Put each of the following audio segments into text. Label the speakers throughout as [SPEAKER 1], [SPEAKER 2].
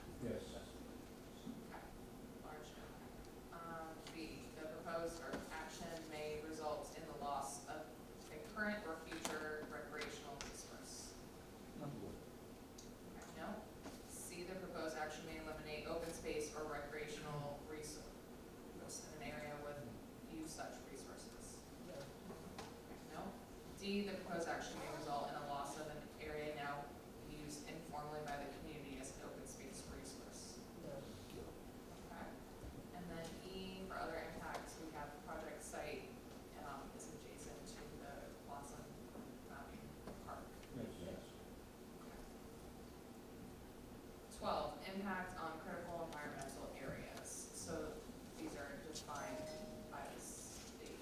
[SPEAKER 1] Um, section may eliminate open space or recreational resource in an area with few such resources. No? D, the proposed action may result in a loss of an area now used informally by the community as an open space resource. Okay. And then E, for other impacts, we have project site, um, is adjacent to the Blossom Mountain Park. Twelve, impact on critical environmental areas, so these are defined by the state.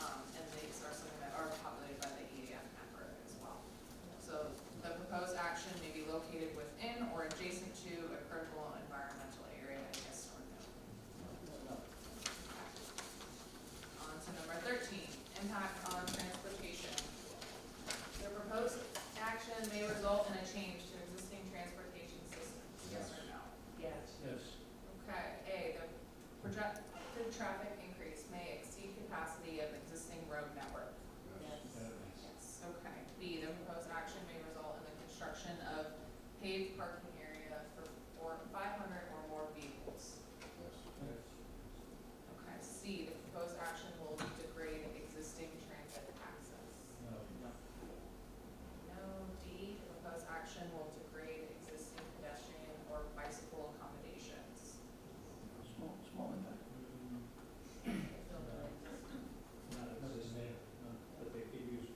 [SPEAKER 1] Um, and these are something that are populated by the E EAF network as well. So the proposed action may be located within or adjacent to a critical environmental area, I guess, or no. On to number thirteen, impact on transportation. The proposed action may result in a change to existing transportation systems, yes or no?
[SPEAKER 2] Yes.
[SPEAKER 3] Yes.
[SPEAKER 1] Okay, A, the projected traffic increase may exceed capacity of existing road network. Yes. Okay. B, the proposed action may result in the construction of paved parking area for four, five hundred or more vehicles. Okay. C, the proposed action will degrade existing transit access. No, D, the proposed action will degrade existing pedestrian or bicycle accommodations.
[SPEAKER 3] Small, small impact. Not as there, but they could use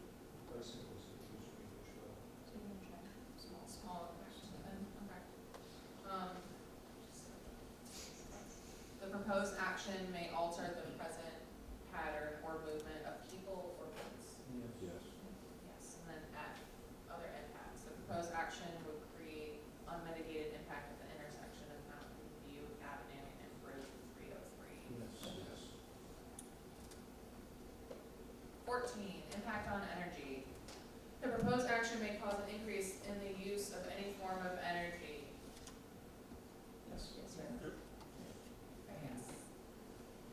[SPEAKER 3] bicycles if you wish
[SPEAKER 1] Small, small impact, then, okay. Um, The proposed action may alter the present pattern or movement of people or goods.
[SPEAKER 3] to.
[SPEAKER 1] Yes, and then F, other impacts. The proposed action would create unmitigated impact at the intersection of Mountain View Avenue and Route three oh three.
[SPEAKER 3] Yes.
[SPEAKER 1] Fourteen, impact on energy. The proposed action may cause an increase in the use of any form of energy.
[SPEAKER 3] Yes.
[SPEAKER 1] Yes, sir. Yes.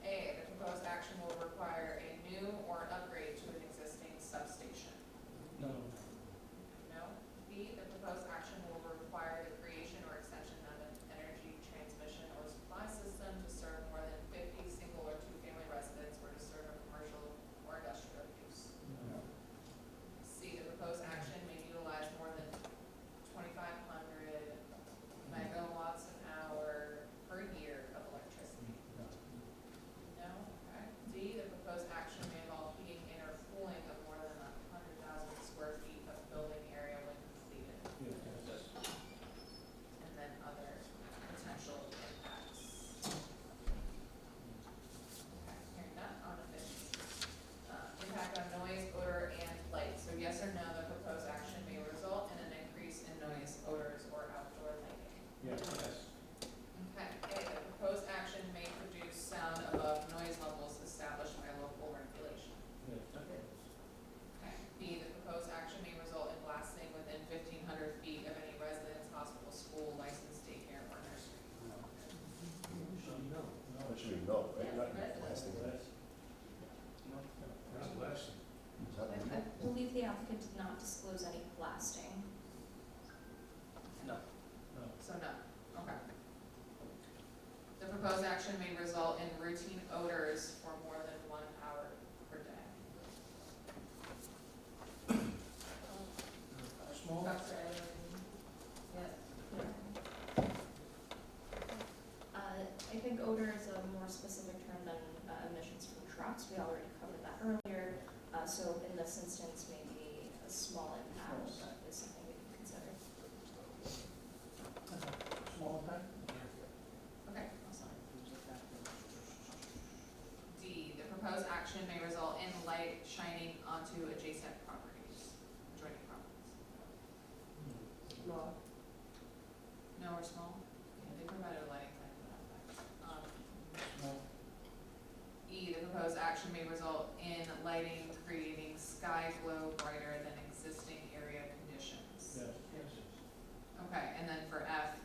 [SPEAKER 1] A, the proposed action will require a new or an upgrade to an existing substation.
[SPEAKER 3] No.
[SPEAKER 1] No. B, the proposed action will require the creation or extension of an energy transmission or supply system to serve more than fifty single or two-family residents or to serve a commercial or industrial use. C, the proposed action may utilize more than twenty-five hundred megawatts an hour per year of electricity. No, okay. D, the proposed action may involve heating and or cooling of more than hundred thousand square feet of building area when completed,
[SPEAKER 3] Yes.
[SPEAKER 1] and then other potential impacts. Okay, Hearing none, on to fifteen. Uh, Impact on noise, odor, and light. So yes or no, the proposed action may result in an increase in noise, odors, or outdoor lighting.
[SPEAKER 3] Yes.
[SPEAKER 1] Okay, A, the proposed action may produce sound above noise levels established by local regulation. Okay, B, the proposed action may result in blasting within fifteen hundred feet of any residence, hospital, school, licensed daycare, or nursery.
[SPEAKER 3] No. No.
[SPEAKER 4] That should be no, right? Not
[SPEAKER 1] Yeah, right.
[SPEAKER 4] blasting. Is
[SPEAKER 3] Not less.
[SPEAKER 4] that
[SPEAKER 5] I
[SPEAKER 4] legal?
[SPEAKER 5] I believe the applicant did not disclose any blasting.
[SPEAKER 3] No.
[SPEAKER 1] So no, okay. The proposed action may result in routine odors for more than one hour per day.
[SPEAKER 3] Small.
[SPEAKER 1] Dr. Eileen? Yes.
[SPEAKER 5] Uh, I think odor is a more specific term than uh, emissions from trucks. We already covered that earlier. Uh, So in this instance, maybe a small impact is something we can consider.
[SPEAKER 3] Small impact?
[SPEAKER 1] Okay, I'm sorry. D, the proposed action may result in light shining onto adjacent properties, adjoining properties. No or small? Yeah, they provided a lighting plan for that, but, um,
[SPEAKER 3] No.
[SPEAKER 1] E, the proposed action may result in lighting creating sky glow brighter than existing area conditions.
[SPEAKER 3] Yes.
[SPEAKER 1] Okay, and then for F, um,